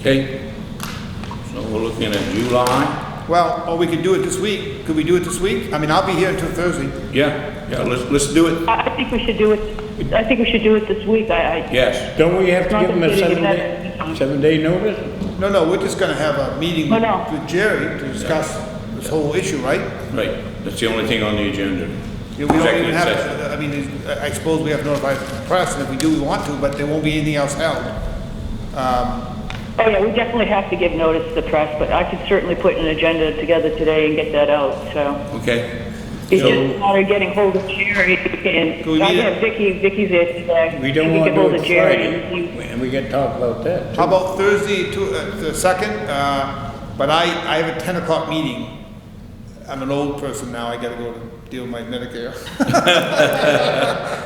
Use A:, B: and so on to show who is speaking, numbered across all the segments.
A: Okay? So we're looking at July?
B: Well, or we could do it this week. Could we do it this week? I mean, I'll be here until Thursday.
A: Yeah, yeah, let's, let's do it.
C: I I think we should do it, I think we should do it this week, I, I,
A: Yes.
D: Don't we have to
C: Not
D: give them a
C: completely
D: seven day,
C: dependent.
D: seven day notice?
B: No, no, we're just gonna have a meeting
C: Oh, no.
B: with Jerry to discuss this whole issue, right?
A: Right, that's the only thing on the agenda.
B: Yeah, We don't even
A: Executive
B: have,
A: session.
B: I mean, is- I I suppose we have to notify the press, and if we do, we want to, but there won't be anything else held.
C: oh yeah, we definitely have to give notice to the press, but I could certainly put an agenda together today and get that out, so.
A: Okay,
C: It's
A: So-
C: just a matter of getting hold of Jerry
B: Do we
C: and, I
B: need it?
C: have Vicky, Vicky's there today.
D: We don't
C: She can
D: want to
C: get
D: do
C: hold
D: it
C: of Jerry and
D: Friday,
C: see-
D: and we can talk about that.
B: How about Thursday, to- uh, the second? Uh, But I, I have a 10 o'clock meeting. I'm an old person now, I gotta go to deal with my Medicare.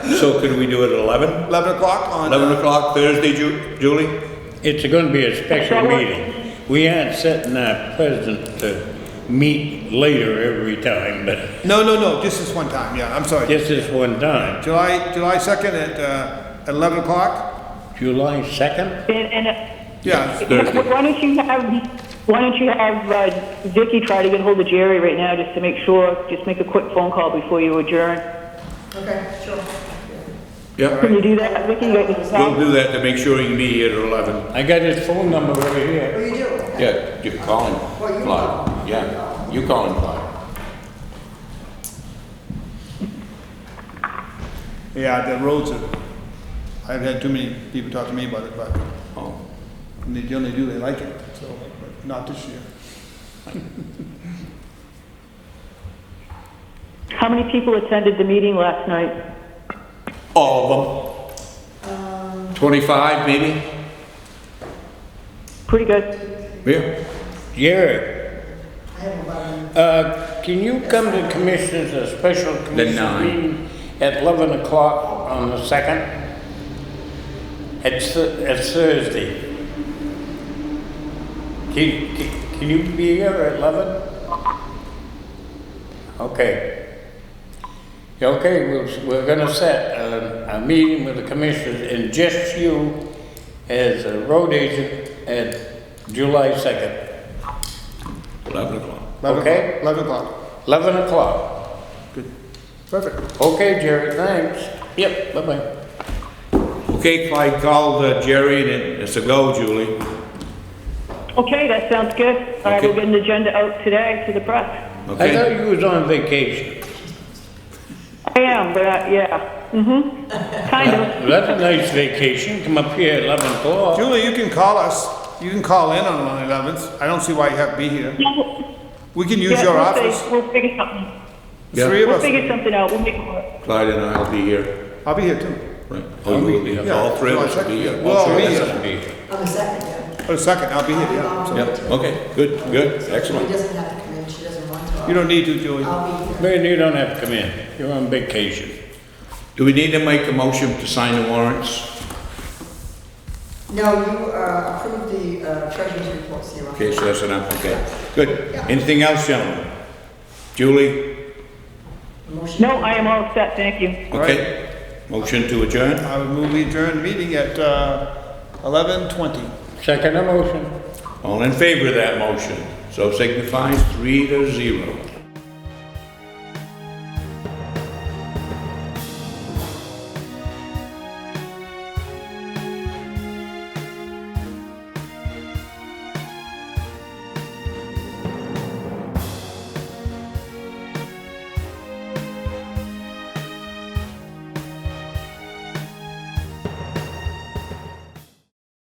A: so could we do it at 11?
B: 11 o'clock on... uh,
A: 11 o'clock Thursday, Ju- Julie?
D: It's gonna be a special
C: Shall we-
D: meeting. We aren't setting our president to meet later every time, but
B: No, no, no, just this one time, yeah, I'm sorry.
D: just this one time.
B: July, July 2nd at uh, 11 o'clock?
D: July second?
C: And, and
B: Yeah.
A: Thursday.
C: Why don't you have, why don't you have uh, Vicky try to get hold of Jerry right now, just to make sure, just make a quick phone call before you adjourn?
E: Okay, sure.
A: Yeah,
C: Can you do that, Vicky? You got your
A: we'll
C: phone?
A: do that to make sure you can be here at 11.
D: I got his phone number over here.
E: What do you do?
A: Yeah, you call him.
E: Well, you
A: Clyde.
E: call him.
A: Yeah, you call him, Clyde.
B: Yeah, the roads are, I've had too many people talk to me about it, but
A: Oh,
B: and they generally do, they like it, so, but not this year.
C: How many people attended the meeting last night?
A: All of
E: Um,
A: them? 25 maybe?
C: Pretty good.
A: Yeah.
D: Jerry,
E: I have about,
D: uh, can you come to commissioners, a special commission
A: nine.
D: meeting at eleven o'clock on the second? It's, it's Thursday. Can, can- can you be here at eleven? Okay. Okay, we're, we're gonna set um, a, a meeting with the commissioners and just you as a road agent at July second.
A: 11 o'clock.
B: 11
D: Okay.
B: o'clock, 11 o'clock,
D: 11 o'clock.
B: perfect.
D: Okay, Jerry, thanks. Yep, bye-bye.
A: Okay, Clyde called uh, Jerry and it- it's a go, Julie.
C: Okay, that sounds good. All right, we'll
A: Okay.
C: get an agenda out today to the press.
D: I thought
A: Okay?
D: you was on vacation.
C: I am, but, uh, yeah, mm-hmm, kind of.
D: Well, That's a nice vacation, come up here at 11 o'clock.
B: Julie, you can call us, you can call in on the 11th, I don't see why you have to be here. We can use
C: Yeah,
B: your
C: we'll
B: office,
C: fi- We'll figure something,
A: Yeah.
B: three of
C: we'll
B: us,
C: figure something out, we'll make it work.
A: Clyde and I'll be here.
B: I'll be here too,
A: Right. Oh, you will be here. All three of us will be here.
B: We'll all be
A: All three of us
B: here.
A: will be here.
E: on the second, yeah. Um,
B: for a second, I'll be here, yeah. so-
A: Yep, okay, good, good,
E: She
A: excellent.
E: doesn't have to come in, she doesn't want to.
B: You don't need to, Julie.
E: I'll be here.
D: Man, you don't have to come in, you're on vacation.
A: Do we need to make a motion to sign the warrants?
E: No, you uh, approved the uh, treasurer's report, so you're on.
A: Okay, so that's enough, okay. Good. Anything else, gentlemen? Julie?
E: Motion.
C: No, I am all set, thank you.
A: Okay. Motion to adjourn?
B: I would move we adjourn the meeting at uh, 11:20.
D: Second emotion.
A: All in favor of that motion? So signifies three to zero.